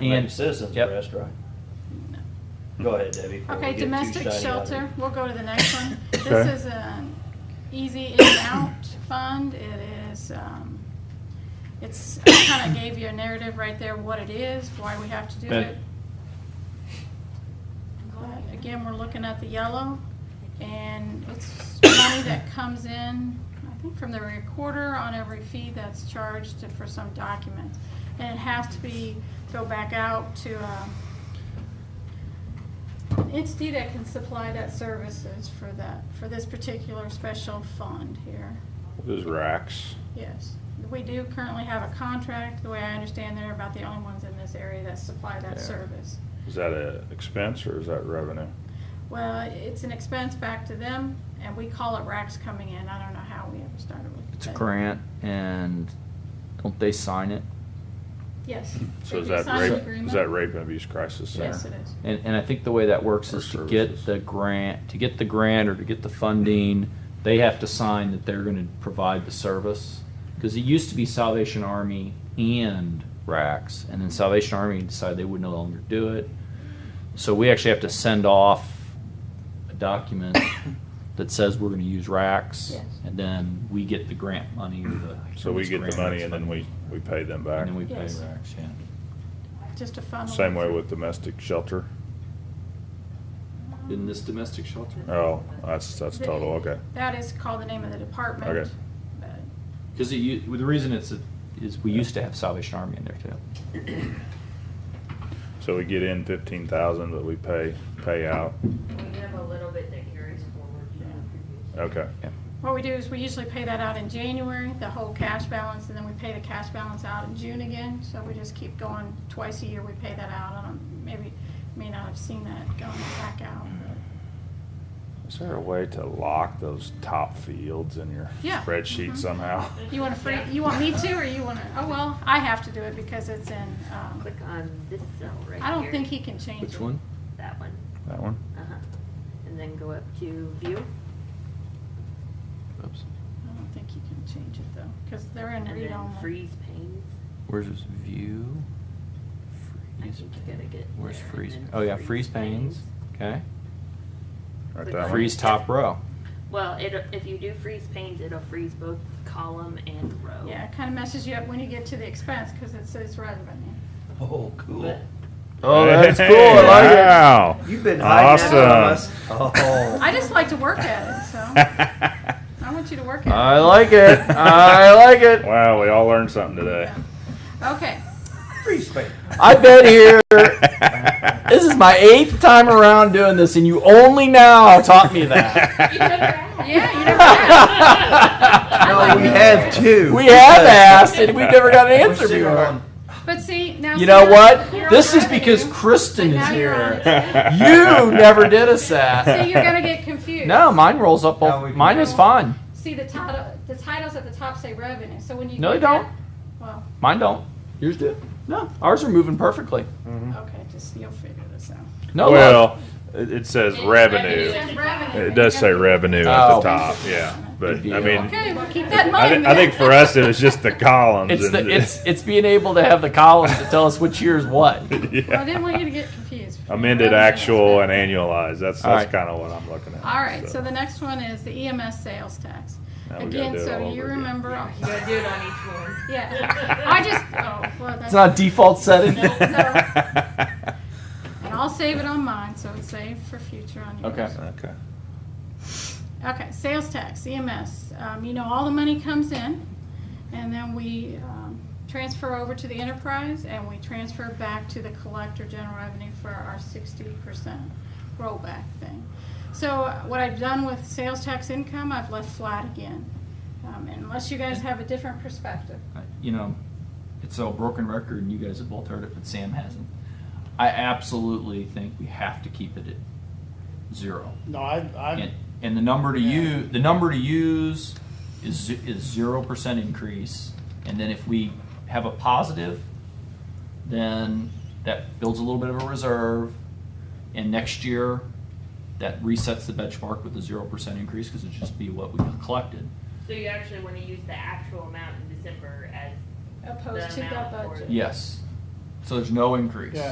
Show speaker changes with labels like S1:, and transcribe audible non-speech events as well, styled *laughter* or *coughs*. S1: And-
S2: Maybe citizens
S1: yep.
S2: arrest, right? Go ahead, Debbie. before we
S3: Okay,
S2: get too
S3: domestic
S2: shiny out of
S3: shelter,
S2: it.
S3: we'll go to the next one.
S2: *laughs*
S4: Okay.
S3: This is an easy in and out fund. It is, um, it's, I kind
S2: *coughs*
S3: of gave you a narrative right there, what it is, why we have to do
S4: Ben.
S3: it. But Again, we're looking at the yellow, and it's money that comes in, I think from the recorder on every fee that's charged for some document. And it has to be, go back out to, um, entity that can supply that services for that, for this particular special fund here.
S4: Those racks.
S3: Yes, we do currently have a contract, the way I understand, they're about the only ones in this area that supply that
S4: Yeah.
S3: service.
S4: Is that a expense or is that revenue?
S3: Well, it's an expense back to them, and we call it racks coming in, I don't know how we ever started with.
S1: It's a
S3: that.
S1: grant, and don't they sign it?
S3: Yes.
S4: So
S3: They
S4: is
S3: do
S4: that
S3: sign an
S4: rape, is
S3: agreement.
S4: that rape and abuse crisis center?
S3: Yes, it is.
S1: And, and I think the way that works
S4: Or
S1: is to get
S4: services.
S1: the grant, to get the grant or to get the funding, they have to sign that they're gonna provide the service. Cause it used to be Salvation Army and RACs, and then Salvation Army decided they would no longer do it. So we actually have to send off a
S3: *coughs*
S1: document that says we're gonna use RACs.
S3: Yes.
S1: And then we get the grant money or the.
S4: So we get the
S1: grant or
S4: money and then we, we pay them back?
S1: And then we pay
S3: Yes.
S1: RACs, yeah.
S3: Just a fun.
S4: Same way with domestic shelter?
S1: In this domestic shelter?
S4: Oh, that's, that's total, okay.
S3: That is called the name of the department.
S4: Okay.
S3: but-
S1: Because the reason it's, a- is we used to have Salvation Army in there too.
S4: So we get in fifteen thousand, but we pay, pay out,
S5: We have a little bit that carries forward from the previous.
S4: okay.
S1: Yeah.
S3: What we do is we usually pay that out in January, the whole cash balance, and then we pay the cash balance out in June again. So we just keep going twice a year, we pay that out. I don't, maybe, may not have seen that going back out.
S4: Is there a way to lock those top fields in your
S3: Yeah.
S4: spreadsheet
S3: Mhm.
S4: somehow?
S3: You want to free, you want me to, or you want to, oh, well, I have to do it because it's in, um,
S5: Click on this cell right here.
S3: I don't think he can change it.
S1: Which one?
S5: That one,
S4: That one?
S5: uh-huh. And then go up to view,
S1: Oops.
S3: I don't think he can change it though, because they're in
S5: and
S3: read
S5: then
S3: only.
S5: freeze panes.
S1: Where's this view?
S5: I
S1: Freeze.
S5: think you gotta get
S1: Where's
S5: there and
S1: freeze?
S5: then
S1: Oh yeah,
S5: freeze
S1: freeze panes. Okay.
S4: Right,
S5: Click
S4: that one?
S1: Freeze
S4: *laughs*
S1: top row.
S5: Well, it, if you do freeze panes, it'll freeze both column and row.
S3: Yeah, it kind of messes you up when you get to the expense because it says revenue.
S2: Oh, cool.
S5: But
S1: Oh,
S4: Hey,
S1: that's cool. I
S4: Wow.
S2: You've been hiding that from us.
S4: Awesome.
S2: Oh.
S3: I just like to work at it, so I want you to work at it.
S1: like it. *laughs* I like it.
S4: *laughs* Wow, we all learned something
S1: Uh,
S4: today.
S3: Okay,
S2: Free space.
S1: I've been
S4: *laughs*
S1: here. This is my eighth time around doing this, and you only now taught me
S5: *laughs*
S1: that. *laughs*
S3: yeah, you never
S2: No,
S3: have.
S2: we have two.
S1: We have asked, and we never got an
S2: We're
S1: answer
S2: sitting
S1: before.
S2: on-
S3: But see, now.
S1: You
S3: see,
S1: know
S3: you're-
S1: what?
S3: you're on
S1: This is because
S3: revenue.
S1: Kristen is
S3: Now you're on
S1: here.
S3: it.
S1: You never did us that.
S3: See, you're gonna get confused.
S1: No, mine rolls up.
S2: No, we
S1: All,
S2: can-
S1: mine is fine.
S3: See, the title, the titles at the top say revenue, so when you.
S1: No,
S3: get
S1: they don't.
S3: that- Well,
S1: Mine don't. Yours do. No, ours are moving perfectly.
S3: okay, just, you'll figure this out.
S1: No, look.
S4: Well, it it says revenue.
S3: It says revenue.
S4: It does say revenue at
S1: Oh.
S4: the top, yeah, but I mean,
S3: Okay, well, keep that in
S4: I,
S3: mind.
S4: thi- I think
S3: then.
S4: for us, it was just the columns.
S1: it's
S4: and
S1: the
S4: *laughs*
S1: it's it's being able to have the columns to tell us which year is what.
S3: *laughs* Well, I didn't
S4: yeah.
S3: want you to get confused.
S4: *laughs* Amended
S3: Revenue.
S4: actual and annualized, that's,
S1: All
S4: that's
S1: right.
S4: kinda what I'm looking at.
S3: All right, so the next one is the EMS sales tax.
S4: Now we gotta
S3: Again,
S4: do it all
S3: so you
S4: over again.
S3: remember,
S5: You gotta do it on each one.
S3: yeah, I just, oh, well,
S1: It's
S3: that's.
S1: not a default setting.
S3: And I'll save it on mine, so it's saved for future on yours.
S1: Okay.
S4: *laughs* Okay.
S3: Okay, sales tax, EMS, um, you know, all the money comes in, and then we, um, transfer over to the enterprise, and we transfer back to the collector general revenue for our sixty percent rollback thing. So uh, what I've done with sales tax income, I've left flat again, um, unless you guys have a different perspective.
S1: Uh, you know, it's a broken record, and you guys have both heard it, but Sam hasn't. I absolutely think we have to keep it at zero.
S6: No, I,
S1: And,
S6: I,
S1: and the number to you, the number to use is ze- is zero percent increase. And then if we have a positive, then that builds a little bit of a reserve. And next year, that resets the benchmark with a zero percent increase because it'd just be what we collected.
S5: So you actually wanna use the actual amount in December as
S3: Opposed to
S5: The
S3: the
S5: amount for
S3: budget.
S5: it.
S1: Yes.
S7: So there's no increase.
S1: Yeah.